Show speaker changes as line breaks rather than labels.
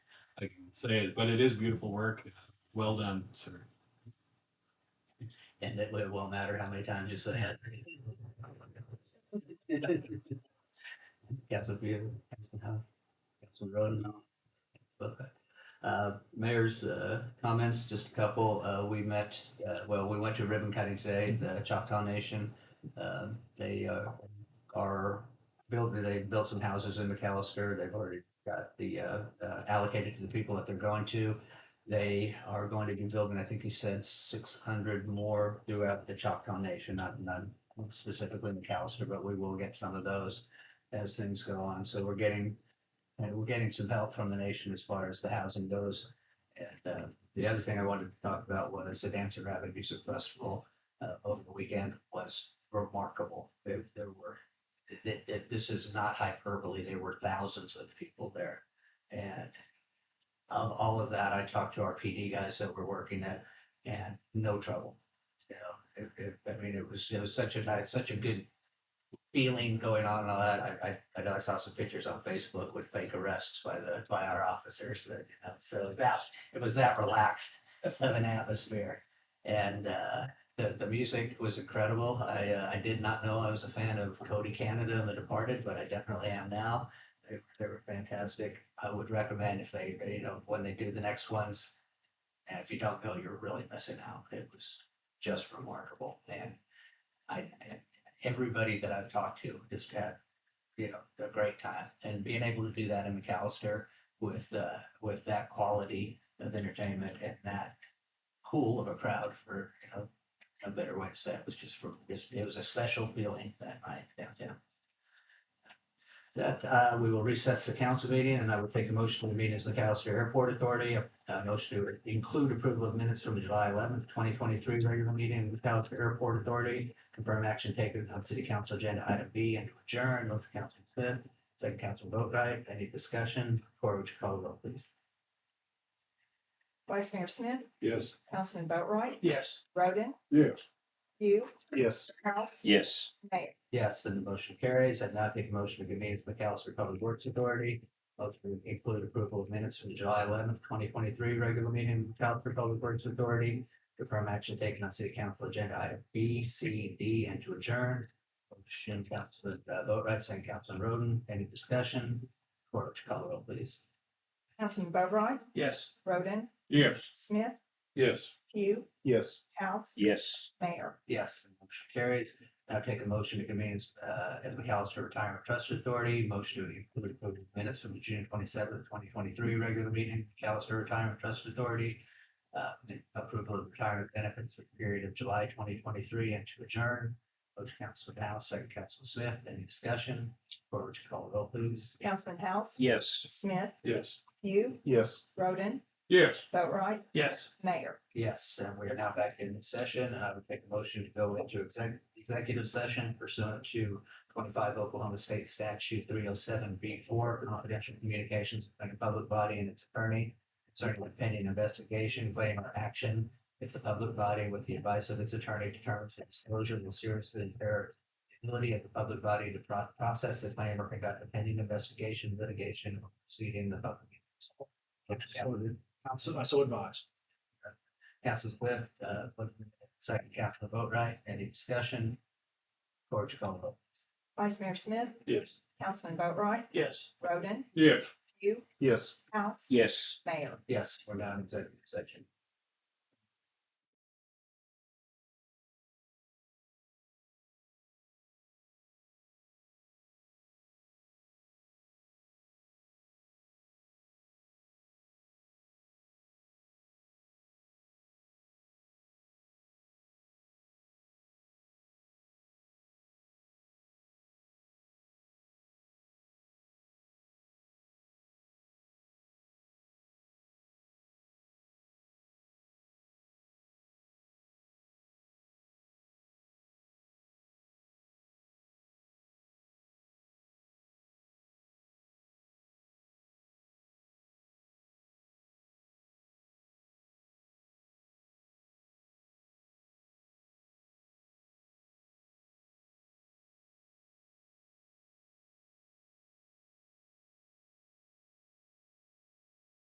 I can say it, but it is beautiful work. Well done, sir.
And it won't matter how many times you say it. Council Beal, Councilman Howe, Councilman Rhodes. But, uh, Mayor's uh, comments, just a couple. Uh, We met, uh, well, we went to ribbon cutting today, the Choctaw Nation. Uh, They uh, are built, they built some houses in McAllister. They've already got the uh, uh, allocated to the people that they're going to. They are going to be building, I think he said, six hundred more throughout the Choctaw Nation, not, not specifically McAllister, but we will get some of those as things go on. So we're getting, and we're getting some help from the nation as far as the housing goes. And uh, the other thing I wanted to talk about was the Dancer Rabbit Music Festival uh, over the weekend was remarkable. There, there were, it, it, this is not hyperbole, there were thousands of people there. And of all of that, I talked to our PD guys that were working it and no trouble. You know, it, it, I mean, it was, it was such a nice, such a good feeling going on and all that. I, I, I know I saw some pictures on Facebook with fake arrests by the, by our officers that, you know, so that, it was that relaxed of an atmosphere. And, uh, the, the music was incredible. I, uh, I did not know I was a fan of Cody Canada and The Departed, but I definitely am now. They, they were fantastic. I would recommend if they, you know, when they do the next ones. And if you don't go, you're really missing out. It was just remarkable. And I, I- everybody that I've talked to just had, you know, a great time. And being able to do that in McAllister with, uh, with that quality of entertainment and that cool of a crowd for, you know, a better way to say it was just for, it was a special feeling that night downtown. That, uh, we will recess the council meeting and I will take a motion to meet as McAllister Airport Authority. A a motion to include approval of minutes from the July eleventh, twenty twenty-three regular meeting of McAllister Airport Authority. Confirm action taken on city council agenda item B and to adjourn with Council Smith, second council vote right. Any discussion? Cora, would you call the roll, please?
Vice Mayor Smith,
Yes.
Councilman Boatright,
Yes.
Roden,
Yes.
you,
Yes.
House,
Yes.
Mayor.
Yes, and the motion carries. I'd now take a motion to convene as McAllister Public Works Authority. Motion to include approval of minutes from the July eleventh, twenty twenty-three regular meeting, of McAllister Public Works Authority. Confirm action taken on city council agenda item B, C, D, and to adjourn. Motion, Councilman, uh, vote right, second Councilman Roden. Any discussion? Cora, would you call the roll, please?
Councilman Boatright,
Yes.
Roden,
Yes.
Smith,
Yes.
you,
Yes.
House,
Yes.
Mayor.
Yes, the motion carries. Now take a motion to convene as, uh, as McAllister Retirement Trust Authority, motion to include approved minutes from the June twenty-seventh, twenty twenty-three regular meeting, McAllister Retirement Trust Authority. Uh, approval of retirement benefits for the period of July twenty twenty-three and to adjourn. Motion Councilman House, second Councilman Smith, any discussion? Or would you call the roll, please?
Councilman House,
Yes.
Smith,
Yes.
you,
Yes.
Roden,
Yes.
Boatright,
Yes.
Mayor.
Yes, and we are now back in session, and I would make a motion to go into exec- executive session pursuant to twenty-five Oklahoma State Statute three oh seven B four, confidential communications between a public body and its attorney concerning an pending investigation, claim, or action if the public body, with the advice of its attorney, determines that disclosure will seriously impair the ability of the public body to pro- process the claim or conduct a pending investigation, litigation, or proceeding in the public.
Council, I so advise.
Council Swift, uh, with the second Council vote right, any discussion? Corriged call vote.
Vice Mayor Smith,
Yes.
Councilman Boatright,
Yes.
Roden,
Yes.
you,
Yes.
House,
Yes.
Mayor.
Yes, we're now in executive session.